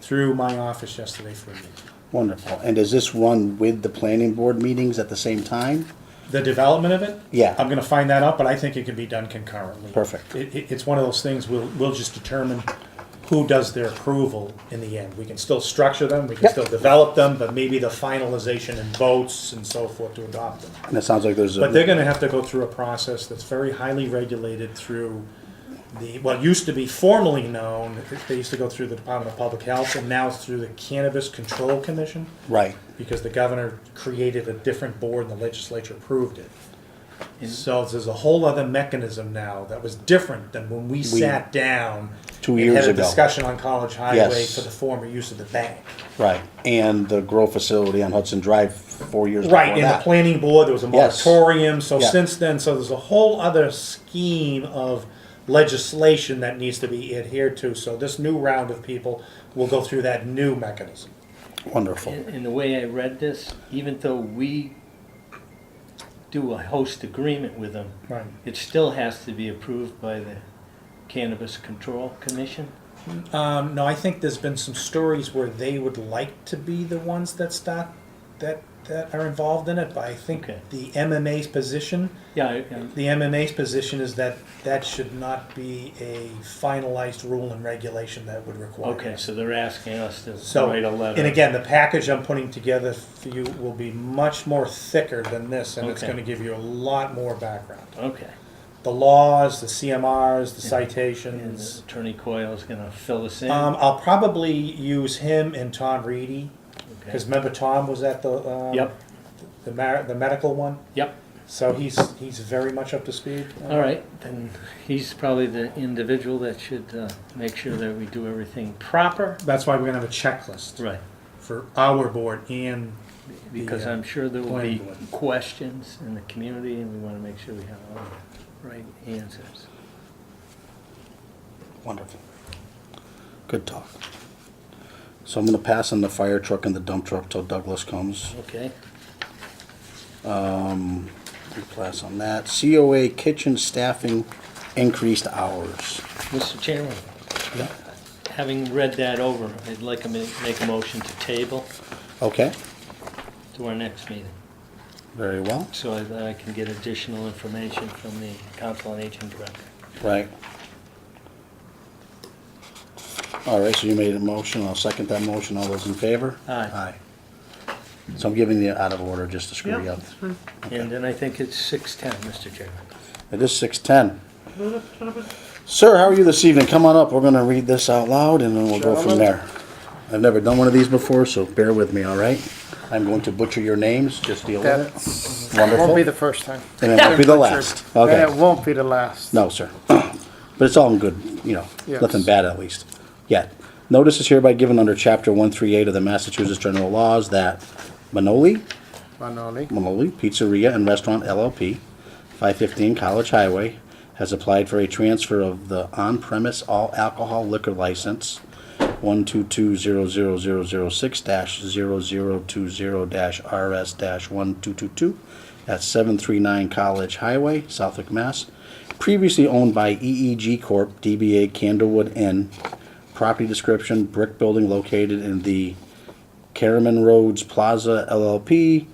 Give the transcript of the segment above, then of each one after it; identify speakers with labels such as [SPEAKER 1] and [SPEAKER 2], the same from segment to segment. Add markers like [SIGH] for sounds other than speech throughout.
[SPEAKER 1] through my office yesterday for a meeting.
[SPEAKER 2] Wonderful. And does this run with the planning board meetings at the same time?
[SPEAKER 1] The development of it?
[SPEAKER 2] Yeah.
[SPEAKER 1] I'm gonna find that out, but I think it can be done concurrently.
[SPEAKER 2] Perfect.
[SPEAKER 1] It, it, it's one of those things, we'll, we'll just determine who does their approval in the end. We can still structure them, we can
[SPEAKER 2] Yep.
[SPEAKER 1] still develop them, but maybe the finalization and votes and so forth to adopt them.
[SPEAKER 2] And it sounds like there's
[SPEAKER 1] But they're
[SPEAKER 2] a,
[SPEAKER 1] gonna have to go through a process that's very highly regulated through the, what used to be formally known, they used to go through the Department of Public Health, and now through the Cannabis Control Commission
[SPEAKER 2] right,
[SPEAKER 1] because the governor created a different board and the legislature approved it. So there's a whole other mechanism now that was different than when we sat down.
[SPEAKER 2] Two
[SPEAKER 1] and
[SPEAKER 2] years
[SPEAKER 1] Had a
[SPEAKER 2] ago.
[SPEAKER 1] discussion on College Highway
[SPEAKER 2] Yes.
[SPEAKER 1] for the former use of the bank.
[SPEAKER 2] right. And the grow facility on Hudson Drive four years before
[SPEAKER 1] Right, in the
[SPEAKER 2] that.
[SPEAKER 1] planning board, there was a
[SPEAKER 2] Yes.
[SPEAKER 1] moratorium, so
[SPEAKER 2] Yeah.
[SPEAKER 1] since then, so there's a whole other scheme of legislation that needs to be adhered to, so this new round of people will go through that new mechanism.
[SPEAKER 2] Wonderful.
[SPEAKER 3] In, in the way I read this, even though we do a host agreement with them,
[SPEAKER 1] Right.
[SPEAKER 3] it still has to be approved by the Cannabis Control Commission?
[SPEAKER 1] Um, no, I think there's been some stories where they would like to be the ones that stop, that, that are involved in it, but I think
[SPEAKER 3] Okay.
[SPEAKER 1] the MMA's position,
[SPEAKER 3] Yeah, I- I-
[SPEAKER 1] the MMA's position is that that should not be a finalized rule and regulation that would require.
[SPEAKER 3] okay,
[SPEAKER 1] it.
[SPEAKER 3] so they're asking us to
[SPEAKER 1] So,
[SPEAKER 3] write a letter.
[SPEAKER 1] and again, the package I'm putting together for you will be much more thicker than this, and it's
[SPEAKER 3] Okay.
[SPEAKER 1] gonna give you a lot more background.
[SPEAKER 3] Okay,
[SPEAKER 1] The laws, the CMRs, the
[SPEAKER 3] and
[SPEAKER 1] citations.
[SPEAKER 3] Attorney Coyle's gonna fill us in?
[SPEAKER 1] Um, I'll probably use him and Tom Reedy,
[SPEAKER 3] Okay.
[SPEAKER 1] because remember Tom was at the, um,
[SPEAKER 3] Yep,
[SPEAKER 1] the mar- the medical one,
[SPEAKER 3] yep,
[SPEAKER 1] so he's, he's very much up to speed.
[SPEAKER 3] all right, then he's probably the individual that should, uh, make sure that we do everything proper.
[SPEAKER 1] That's why we're gonna have a checklist
[SPEAKER 3] Right.
[SPEAKER 1] for our board and,
[SPEAKER 3] Because
[SPEAKER 1] the, uh,
[SPEAKER 3] I'm sure there will
[SPEAKER 1] planning
[SPEAKER 3] be
[SPEAKER 1] board.
[SPEAKER 3] questions in the community, and we want to make sure we have all the right answers.
[SPEAKER 2] Wonderful. Good talk. So I'm gonna pass on the fire truck and the dump truck till Douglas comes.
[SPEAKER 3] Okay?
[SPEAKER 2] We'll Pass on that. COA kitchen staffing increased hours.
[SPEAKER 3] Mr. Chairman, having read that over, I'd like to ma- make a motion to table
[SPEAKER 2] Okay,
[SPEAKER 3] to our next meeting,
[SPEAKER 2] very well,
[SPEAKER 3] so I- that I can get additional information from the Council on Aging Director.
[SPEAKER 2] right. All right, so you made a motion, I'll second that motion, all those in favor?
[SPEAKER 3] Aye.
[SPEAKER 2] So I'm giving you out of order just to screw you up.
[SPEAKER 3] And then I think it's 6:10, Mr. Chairman.
[SPEAKER 2] It is six ten. Sir, how are you this evening? Come on up, we're gonna read this out loud and then we'll go from there. I've never done one of these before, so bear with me, all right? I'm going to butcher your names, just deal with
[SPEAKER 4] That's,
[SPEAKER 2] it. Wonderful.
[SPEAKER 4] won't be the first time.
[SPEAKER 2] And it won't be the last. Okay.
[SPEAKER 4] And it won't be the last.
[SPEAKER 2] No, sir. [CLEARS THROAT] But it's all in good, you know,
[SPEAKER 4] Yes.
[SPEAKER 2] nothing bad at least. Yet, notice is hereby given under chapter one three eight of the Massachusetts General Laws that Manoli,
[SPEAKER 4] Manoli,
[SPEAKER 2] Manoli Pizzeria and Restaurant LLP, 515 College Highway, has applied for a transfer of the on-premise all alcohol liquor license 122-00006-0020-RS-1222 at 739 College Highway, Southwick, Mass. Previously owned by EEG Corp., DBA Candlewood Inn. Property description, brick building located in the Caraman Roads Plaza LLP,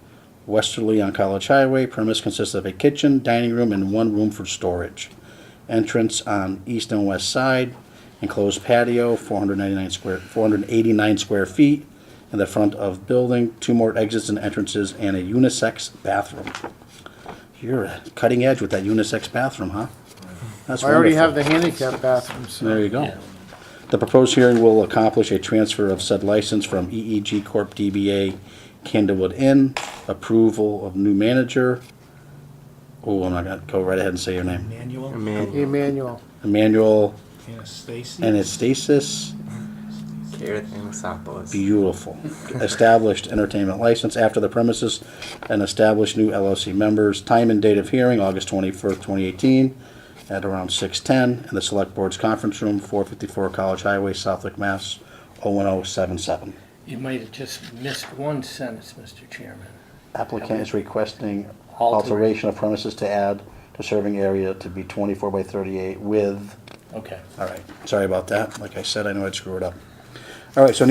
[SPEAKER 2] westerly on College Highway. Premise consists of a kitchen, dining room, and one room for storage. Entrance on east and west side, enclosed patio, 499 square, 489 square feet in the front of building, two more exits and entrances, and a unisex bathroom. You're uh, cutting edge with that unisex bathroom, huh? That's
[SPEAKER 4] I already
[SPEAKER 2] wonderful.
[SPEAKER 4] have the handicap bathrooms.
[SPEAKER 2] There you go.
[SPEAKER 3] Yeah.
[SPEAKER 2] The proposed hearing will accomplish a transfer of said license from EEG Corp. DBA Candlewood Inn, approval of new manager. Oh, I'm not gonna go right ahead and say your name.
[SPEAKER 1] Manual,
[SPEAKER 4] Emmanuel,
[SPEAKER 2] Emmanuel
[SPEAKER 1] Anastasia.
[SPEAKER 2] Anastasis,
[SPEAKER 5] Gareth Anasopoulos.
[SPEAKER 2] beautiful. Established entertainment license after the premises and established new LLC members. Time and date of hearing, August twenty-first, twenty eighteen, at around six ten, in the Select Board's Conference Room, four fifty-four College Highway, Southwick, Mass, oh one oh seven seven.
[SPEAKER 3] You might have just missed one sentence, Mr. Chairman.
[SPEAKER 2] Applicant is requesting
[SPEAKER 3] Alter-
[SPEAKER 2] alteration of premises to add to serving area to be twenty-four by thirty-eight with,
[SPEAKER 3] Okay.
[SPEAKER 2] all right, sorry about that, like I said, I know I'd screw it up. All right, so